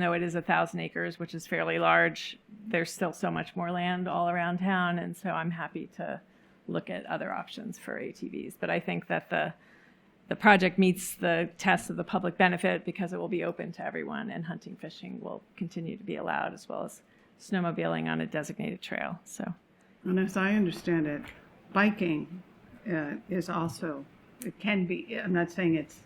though it is a thousand acres, which is fairly large, there's still so much more land all around town, and so I'm happy to look at other options for ATVs. But I think that the, the project meets the test of the public benefit because it will be open to everyone, and hunting, fishing will continue to be allowed, as well as snowmobiling on a designated trail, so. And as I understand it, biking uh, is also, it can be, I'm not saying it's,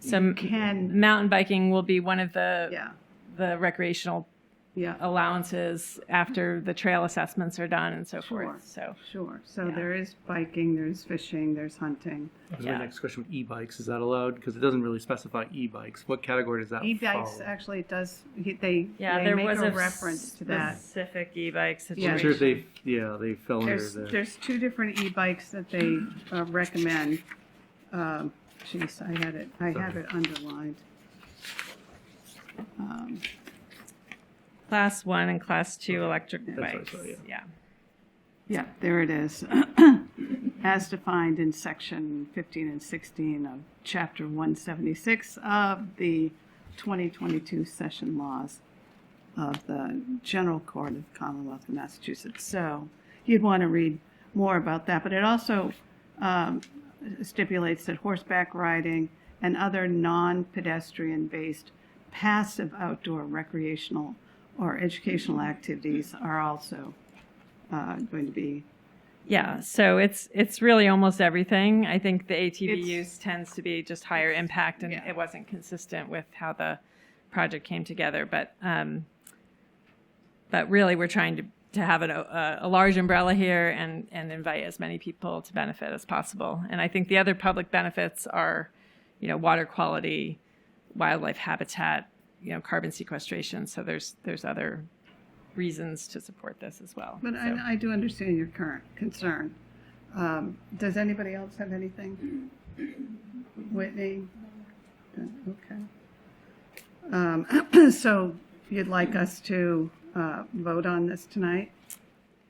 Some can, mountain biking will be one of the, yeah, the recreational yeah, allowances after the trail assessments are done and so Sure. forth, so. sure. So Yeah. there is biking, there's fishing, there's hunting. That was my Yeah. next question with e-bikes. Is that allowed? Because it doesn't really specify e-bikes. What category does that E-bikes fall? actually does, he- they, Yeah, they there make was a a reference to that. specific e-bike Yeah. situation. I'm sure they, yeah, they fell under There's, the. there's two different e-bikes that they uh, recommend. Um, Jeez, I had it, I have Sorry. it underlined. Um, Class one and class two electric That's what I bikes, saw, yeah. yeah. Yeah, there it is. As defined in section 15 and 16 of chapter 176 of the 2022 session laws of the General Court of Commonwealth of Massachusetts. So you'd want to read more about that, but it also um, stipulates that horseback riding and other non-pedestrian-based passive outdoor recreational or educational activities are also uh, going to be Yeah, so it's, it's really almost everything. I think the ATV It's- use tends to be just higher impact and Yeah. it wasn't consistent with how the project came together, but, um, but really we're trying to, to have an, o- a, a large umbrella here and, and invite as many people to benefit as possible. And I think the other public benefits are, you know, water quality, wildlife habitat, you know, carbon sequestration. So there's, there's other reasons to support this as well. But So- I, I do understand your current concern. Um, does anybody else have anything? Whitney? Okay. Um, so you'd like us to, uh, vote on this tonight?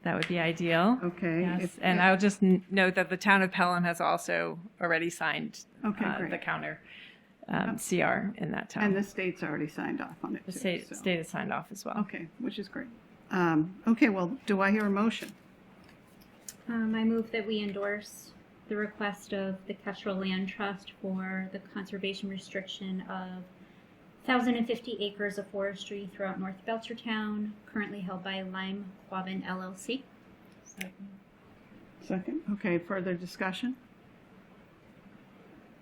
That would be ideal. Okay. Yes, If- and I'll just n- note that the town of Pelham has also already signed Oh, Okay, uh, the great. Oh. counter um, CR in that And town. the state's already signed off on it The too, state, so- state has signed off as well. Okay, which is great. Um, okay, well, do I hear a motion? Um, I move that we endorse the request of the Kestrel Land Trust for the conservation restriction of 1,050 acres of forestry throughout North Belchertown, currently held by Lime Quabbin LLC. Second. Okay, further discussion?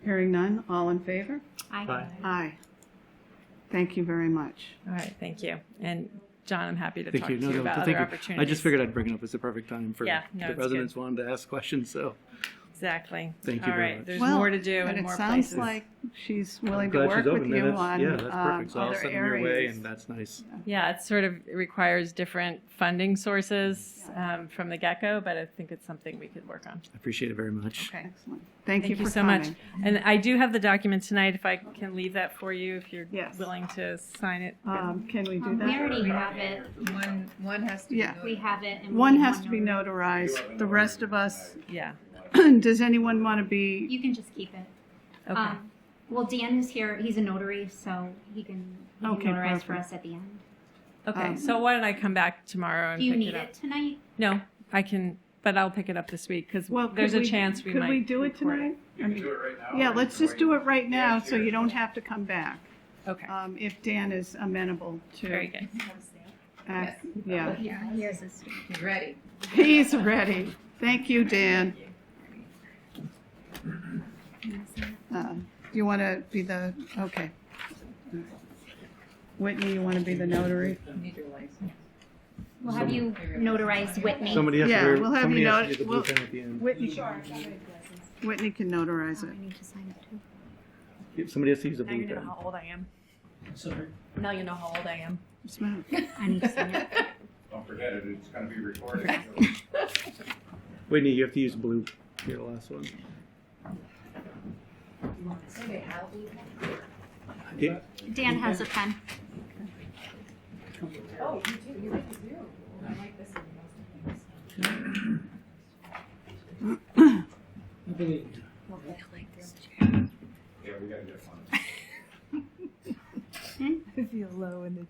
Hearing none, all in favor? I Aye. Aye. Thank you very much. All right, thank you. And John, I'm happy to Thank talk to you. No, you no, about thank other you. I opportunities. just figured I'd bring it up. It's the perfect time for Yeah, no, the it's residents wanted to ask questions. So Exactly. Thank you All very right, much. There's Well, more to do but and it more sounds places. like she's willing to glad work she's open. with No, you that's- on yeah, that's um, perfect. So I'll other send them your way, areas. and that's nice. Yeah, it sort of requires different funding sources um, from the get-go, but I think it's something we could work on. I appreciate it very much. Okay. Excellent. Thank you Thank you for so much. coming. And I do have the document tonight, if I can leave that for you, if you're Yes. willing to sign it. Um, Can we do Um, we that? already have it. One, one has to be Yeah. noted. We have it. And we One need has to be notary. notarized, the rest of us, Yeah, does anyone want to be, You can just keep it. okay, Um, well, Dan is here. He's a notary, so he can, he can Okay, notarize for perfect. us at the end. okay, um, so why don't I come back tomorrow and Do you pick need it up? it tonight? No, I can, but I'll pick it up this week, because well, could there's a we- chance we Could we might. do it record tonight? I You can mean, do it right now. Yeah, or let's you just can do wait. it right now, Yeah, so you don't have to come back, Okay, um, if Dan is amenable to. very good. act- Yeah, Yeah, here's his. He's ready. he's ready. Thank you, Dan. Uh, You want to be the, okay. Whitney, you want to be the notary? You need your license. We'll have you notarized Whitney. Somebody has Yeah, to. wear- we'll have somebody you has know- to do the we'll- blue pen at the end. Whitney, Whitney can notarize Oh, it. I need to sign it too. Yep, Somebody has to use a blue pen. old I am. Now you know how old I am. It's mine. I need to sign it. Don't forget it, it's gonna be recorded. Whitney, you have to use blue. You're the last one. Yeah, Dan has a pen. Oh, you do, you really do. I like this one. Yeah, we gotta get one. I feel low in the